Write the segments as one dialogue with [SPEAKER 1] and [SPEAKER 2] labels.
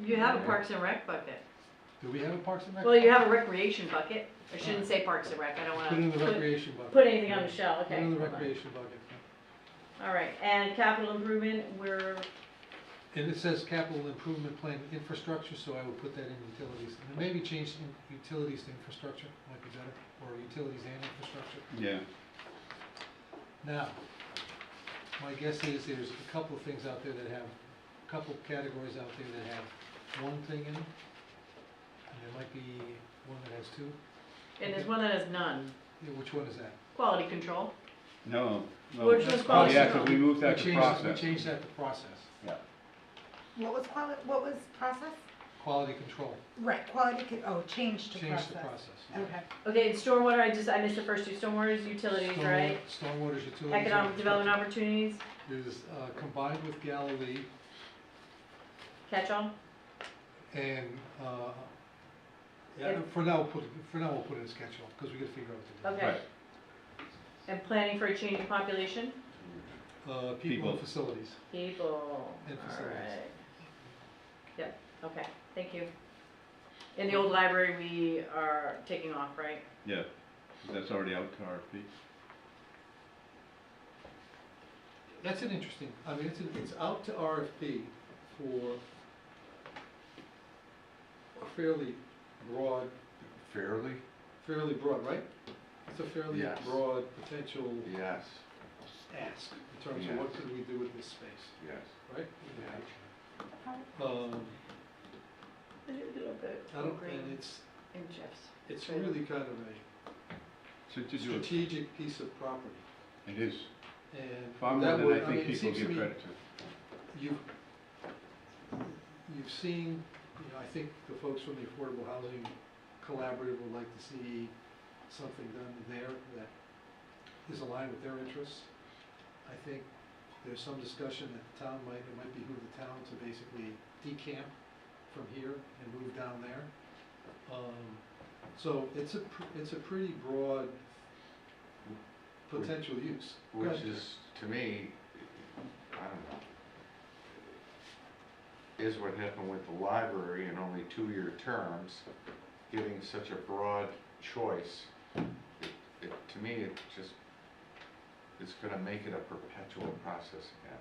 [SPEAKER 1] You have a Parks and Rec bucket.
[SPEAKER 2] Do we have a Parks and Rec?
[SPEAKER 1] Well, you have a recreation bucket. I shouldn't say Parks and Rec, I don't wanna.
[SPEAKER 2] Put it in the
[SPEAKER 1] put-
[SPEAKER 2] recreation bucket.
[SPEAKER 1] Put anything on the shell,
[SPEAKER 2] Put
[SPEAKER 1] okay.
[SPEAKER 2] it in the
[SPEAKER 1] hold on.
[SPEAKER 2] recreation bucket.
[SPEAKER 1] All right, and capital improvement, we're,
[SPEAKER 2] And it says capital improvement plan infrastructure, so I would put that in utilities. And maybe change in- utilities to infrastructure, might be better, or utilities and infrastructure.
[SPEAKER 3] Yeah,
[SPEAKER 2] Now, my guess is there's a couple of things out there that have, a couple of categories out there that have one thing in them. And there might be one that has two.
[SPEAKER 1] and there's one that has none.
[SPEAKER 2] Yeah, Which one is that?
[SPEAKER 1] Quality control.
[SPEAKER 3] no, no.
[SPEAKER 1] Which was
[SPEAKER 3] Oh, yeah,
[SPEAKER 1] possible.
[SPEAKER 3] because we moved
[SPEAKER 2] We
[SPEAKER 3] that to
[SPEAKER 2] changed-
[SPEAKER 3] process.
[SPEAKER 2] We changed that to process,
[SPEAKER 3] Yeah,
[SPEAKER 4] What was quali, what was process?
[SPEAKER 2] quality control,
[SPEAKER 4] Right, quality, co- oh, change to
[SPEAKER 2] change
[SPEAKER 4] process.
[SPEAKER 2] the process.
[SPEAKER 4] Okay,
[SPEAKER 1] Okay, and stormwater, I just, I missed the first two, stormwater is utilities,
[SPEAKER 2] Storm-
[SPEAKER 1] right?
[SPEAKER 2] Stormwater utilities.
[SPEAKER 1] Economic development opportunities,
[SPEAKER 2] Is, uh, combined with Galilee
[SPEAKER 1] catch-all,
[SPEAKER 2] and, uh, yeah,
[SPEAKER 1] Yep.
[SPEAKER 2] for now, we'll put, it- for now, we'll put it in schedule, because we gotta figure out Uh, what to
[SPEAKER 1] okay. And planning for a changing population,
[SPEAKER 2] do. Uh, people
[SPEAKER 3] People.
[SPEAKER 2] and facilities,
[SPEAKER 1] people,
[SPEAKER 2] And facilities.
[SPEAKER 1] alright. Yep, okay, thank you. In the old library, we are taking off, right?
[SPEAKER 3] yeah, that's already out to RFP.
[SPEAKER 2] that's an interesting, I mean, it's, an- it's out to RFP for a fairly broad,
[SPEAKER 5] Fairly?
[SPEAKER 2] fairly broad, right? It's a fairly
[SPEAKER 5] Yes.
[SPEAKER 2] broad potential
[SPEAKER 5] Yes,
[SPEAKER 2] ask in terms of what could we do with this space,
[SPEAKER 5] yes.
[SPEAKER 2] right?
[SPEAKER 4] Yeah.
[SPEAKER 2] Um,
[SPEAKER 1] I did a little bit
[SPEAKER 2] I don't,
[SPEAKER 1] green
[SPEAKER 2] and it's,
[SPEAKER 1] in Jeff's.
[SPEAKER 2] it's
[SPEAKER 1] Trailer.
[SPEAKER 2] really kind of a
[SPEAKER 3] So to do, it
[SPEAKER 2] strategic piece of property,
[SPEAKER 3] it is far
[SPEAKER 2] and
[SPEAKER 3] more
[SPEAKER 2] that
[SPEAKER 3] than
[SPEAKER 2] would,
[SPEAKER 3] I
[SPEAKER 2] I mean,
[SPEAKER 3] think
[SPEAKER 2] it
[SPEAKER 3] people
[SPEAKER 2] seems to
[SPEAKER 3] give
[SPEAKER 2] me,
[SPEAKER 3] credit to.
[SPEAKER 2] you've, you've seen, you know, I think the folks from the Affordable Housing Collaborative would like to see something done there that is aligned with their interests. I think there's some discussion that the town might, it might behoove the town to basically decamp from here and move down there. Um, So it's a, pr- it's a pretty broad potential use.
[SPEAKER 5] Which
[SPEAKER 2] Gotcha.
[SPEAKER 5] is, to me, I don't know. Is what happened with the library in only two-year terms, giving such a broad choice. It- It, to me, it just, it's gonna make it a perpetual process again.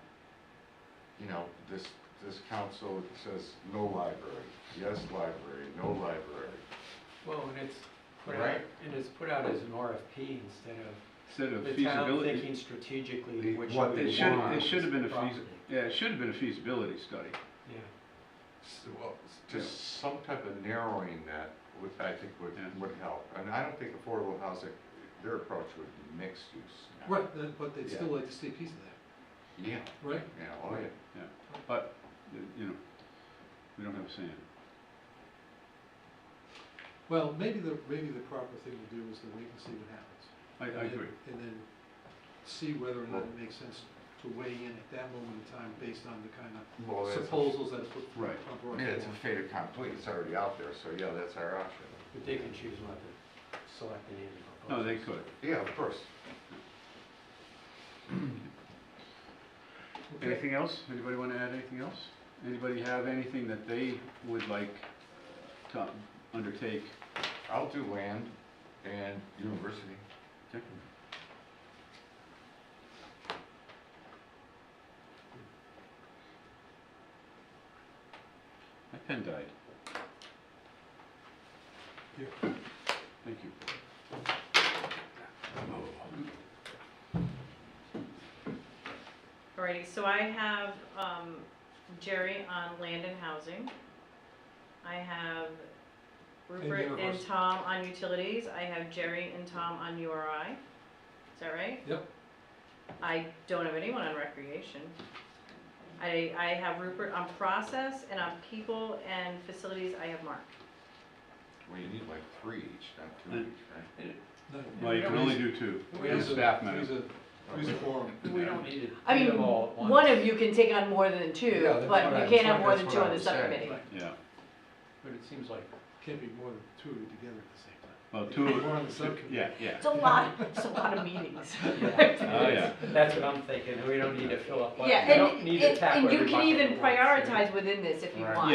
[SPEAKER 5] You know, this, this council says no library, yes library, no library.
[SPEAKER 6] Well, and it's put out,
[SPEAKER 5] Right.
[SPEAKER 6] and it's put out as an RFP instead of
[SPEAKER 3] Instead of
[SPEAKER 6] the town
[SPEAKER 3] feasibility.
[SPEAKER 6] thinking strategically
[SPEAKER 5] The-
[SPEAKER 6] which
[SPEAKER 5] what
[SPEAKER 6] way
[SPEAKER 5] they
[SPEAKER 3] It
[SPEAKER 6] we
[SPEAKER 3] should,
[SPEAKER 6] want
[SPEAKER 3] it should have been a
[SPEAKER 6] this
[SPEAKER 3] feas,
[SPEAKER 6] property.
[SPEAKER 3] yeah, it should have been a feasibility study.
[SPEAKER 6] Yeah,
[SPEAKER 5] S- well, s- Just some type of narrowing that would, I think would,
[SPEAKER 3] Yeah.
[SPEAKER 5] would help. And I don't think affordable housing, their approach would be mixed use. now.
[SPEAKER 2] Right, that- but they'd still like to see a piece of that,
[SPEAKER 5] Yeah,
[SPEAKER 2] right?
[SPEAKER 5] yeah, oh yeah.
[SPEAKER 3] But, you know, we don't have sand.
[SPEAKER 2] Well, maybe the, maybe the proper thing to do is to wait and see what happens.
[SPEAKER 3] I, I
[SPEAKER 2] And then-
[SPEAKER 3] agree.
[SPEAKER 2] And then see whether or not it makes sense to weigh in at that moment in time based on the kind of
[SPEAKER 5] Well, that's a-
[SPEAKER 2] proposals that are put.
[SPEAKER 3] Oh,
[SPEAKER 2] are
[SPEAKER 3] Right.
[SPEAKER 5] I
[SPEAKER 2] brought
[SPEAKER 5] mean, it's a
[SPEAKER 2] forward.
[SPEAKER 5] fait accompli, it's already out there, so yeah, that's our option.
[SPEAKER 6] but they can choose not to select any of the
[SPEAKER 3] No,
[SPEAKER 6] proposals.
[SPEAKER 3] they could.
[SPEAKER 5] Yeah, of course.
[SPEAKER 2] Okay,
[SPEAKER 3] Anything else? Anybody want to add anything else? Anybody have anything that they would like to undertake?
[SPEAKER 5] I'll do land and university.
[SPEAKER 3] Okay. My pen died.
[SPEAKER 2] Here.
[SPEAKER 3] Thank you.
[SPEAKER 1] Alrighty, so I have um, Jerry on land and housing. I have Rupert and
[SPEAKER 2] universal.
[SPEAKER 1] Tom on utilities. I have Jerry and Tom on URI. Is that right?
[SPEAKER 2] Yep.
[SPEAKER 1] I don't have anyone on recreation. I, I have Rupert on process and on people and facilities, I have Mark.
[SPEAKER 5] Well, you need like three each, not two each, right?
[SPEAKER 2] no,
[SPEAKER 3] Well, you can only do two. And staff
[SPEAKER 2] Who's
[SPEAKER 3] member.
[SPEAKER 2] a, who's a forum?
[SPEAKER 6] We don't need to.
[SPEAKER 1] I
[SPEAKER 6] do
[SPEAKER 1] mean,
[SPEAKER 6] them all at
[SPEAKER 1] one
[SPEAKER 6] once,
[SPEAKER 1] of you can take on more than two,
[SPEAKER 5] Yeah, that's
[SPEAKER 1] but
[SPEAKER 5] what I-
[SPEAKER 1] you can't have more
[SPEAKER 5] that's
[SPEAKER 1] than
[SPEAKER 5] what
[SPEAKER 1] two
[SPEAKER 5] I
[SPEAKER 1] on the
[SPEAKER 5] was saying.
[SPEAKER 1] subcommittee.
[SPEAKER 2] Right.
[SPEAKER 3] Yeah,
[SPEAKER 6] But it seems like
[SPEAKER 2] Can't be more than two together at the same time.
[SPEAKER 3] well,
[SPEAKER 2] If
[SPEAKER 3] two,
[SPEAKER 2] you're on the
[SPEAKER 3] two-
[SPEAKER 2] subcommittee.
[SPEAKER 3] yeah, yeah.
[SPEAKER 1] It's a lot, it's a lot of meetings.
[SPEAKER 3] Oh, yeah.
[SPEAKER 6] That's what I'm thinking, we don't need to fill up, we
[SPEAKER 1] Yeah,
[SPEAKER 6] don't
[SPEAKER 1] and,
[SPEAKER 6] need to
[SPEAKER 1] and,
[SPEAKER 6] tackle
[SPEAKER 1] and you
[SPEAKER 6] every
[SPEAKER 1] can
[SPEAKER 6] bucket
[SPEAKER 1] even
[SPEAKER 6] at once, you know?
[SPEAKER 1] prioritize within this if you
[SPEAKER 5] Right.
[SPEAKER 1] want.